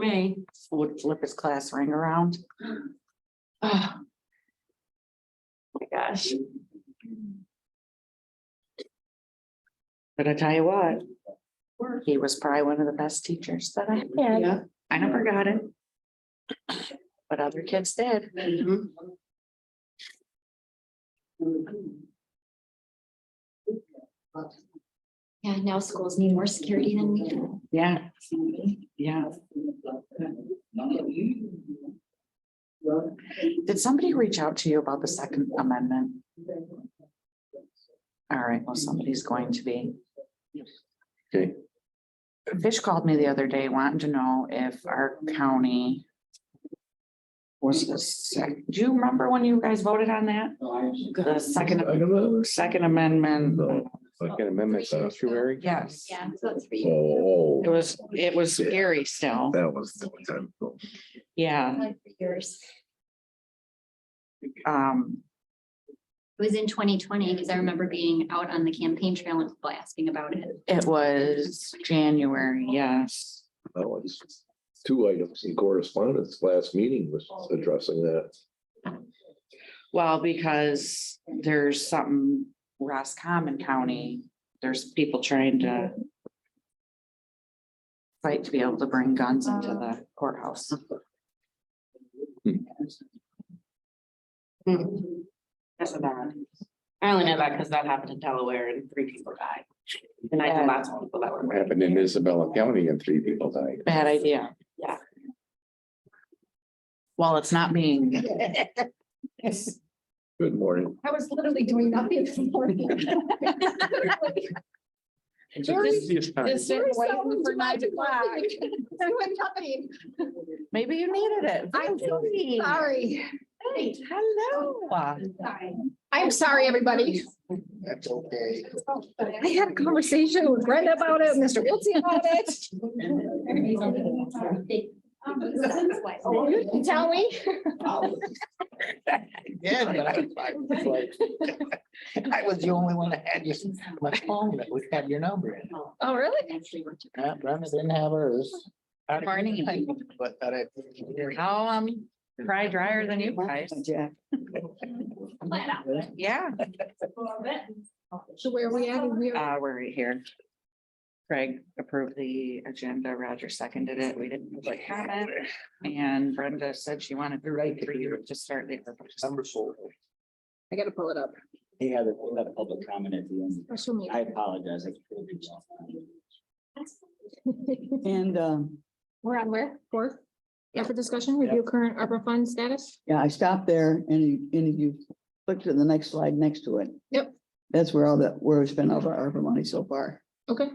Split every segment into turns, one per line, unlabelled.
me.
would flip his class ring around.
Oh. My gosh,
But I tell you what. He was probably one of the best teachers that I had.
yeah.
I never got it. But other kids did.
Mm-hmm.
mhm.
Yeah, now schools need more security than we do.
Yeah, yeah. Did somebody reach out to you about the Second Amendment? All right, well, somebody's going to be.
Okay.
Fish called me the other day wanting to know if our county. Was the sec, do you remember when you guys voted on that? The second, second amendment,
Oh,
Second Amendment sanctuary.
yes,
Yeah, so it's three.
Oh.
it was, it was scary still,
That was the time.
yeah,
Like for years.
um,
It was in twenty twenty, because I remember being out on the campaign trail and people asking about it.
it was January, yes.
That was two items in correspondence. Last meeting was
Oh,
addressing that.
Well, because there's something Roscommon County, there's people trying to. Fight to be able to bring guns into the courthouse.
Mm-hmm. That's a bad. I only know that because that happened in Delaware and three people died. And I
Yeah.
know lots of people that were.
happened in Isabella County and three people died.
Bad idea.
Yeah.
Well, it's not being,
Good morning.
I was literally doing nothing this morning.
maybe you needed it.
I'm so
Hey,
Sorry.
Hello.
I'm sorry, everybody.
That's okay.
I had a conversation with Brenda about it, Mr. Wiltie about it. You can tell me.
Yeah, but I I was like, I was the only one that had your, my phone that would have your number in. it.
Oh, really?
Uh, Brenda didn't have hers.
Morning.
But that I.
How, um, dry drier than you guys. Yeah,
So where are we at? We are-
uh, we're right here. Craig approved the agenda. Roger seconded it. We didn't really comment. And Brenda said she wanted to write for you to start the.
Number four,
I gotta pull it up.
he had a, he had a public comment at the end.
Special meeting.
I apologize. I couldn't do that.
And, um,
We're on where? Fourth? Yeah, for discussion, review current ARPA fund status.
yeah, I stopped there and any of you clicked to the next slide next to it.
Yep.
That's where all that, where we spent all of our ARPA money so far.
Okay.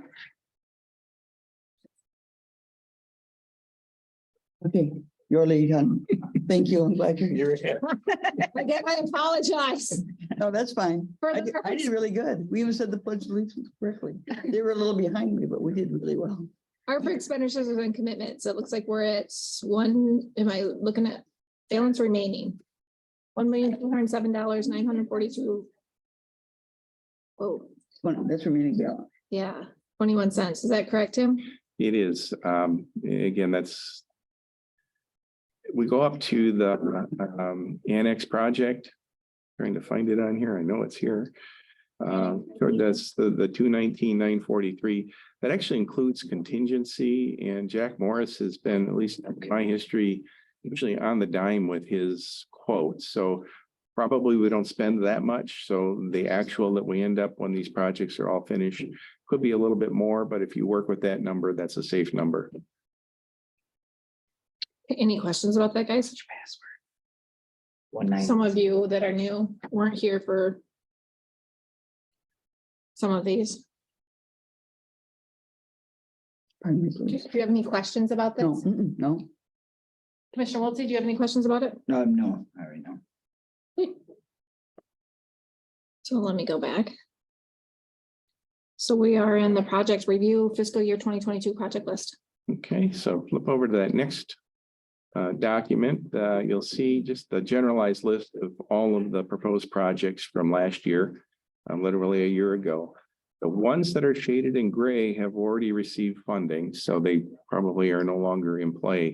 Okay, your lead, hon. Thank you. I'm glad you're,
You're here.
Again, I apologize.
no, that's fine.
For
I
the
did, I
purpose-
did really good. We even said the pledge of allegiance correctly. They were a little behind me, but we did really well.
ARPA expenditures and commitments. It looks like we're at one, am I looking at balance remaining? One million, two hundred and seven dollars, nine hundred and forty-two. Oh,
Well, that's remaining balance.
yeah, twenty-one cents. Is that correct, Tim?
It is, um, again, that's. We go up to the, um, annex project. Trying to find it on here. I know it's here. Uh, that's the, the two nineteen, nine forty-three. That actually includes contingency and Jack Morris has been, at least in my history, usually on the dime with his quotes. So probably we don't spend that much. So the actual that we end up when these projects are all finished could be a little bit more, but if you work with that number, that's a safe number.
Any questions about that, guys?
One night.
Some of you that are new weren't here for some of these.
Pardon me,
Do
please.
you have any questions about
No,
this?
mm-mm, no,
Commissioner Wiltie, do you have any questions about it?
No, no, I already know.
So let me go back. So we are in the project review fiscal year twenty twenty-two project list.
Okay, so flip over to that next uh, document. Uh, You'll see just the generalized list of all of the proposed projects from last year, um, literally a year ago. The ones that are shaded in gray have already received funding, so they probably are no longer in play.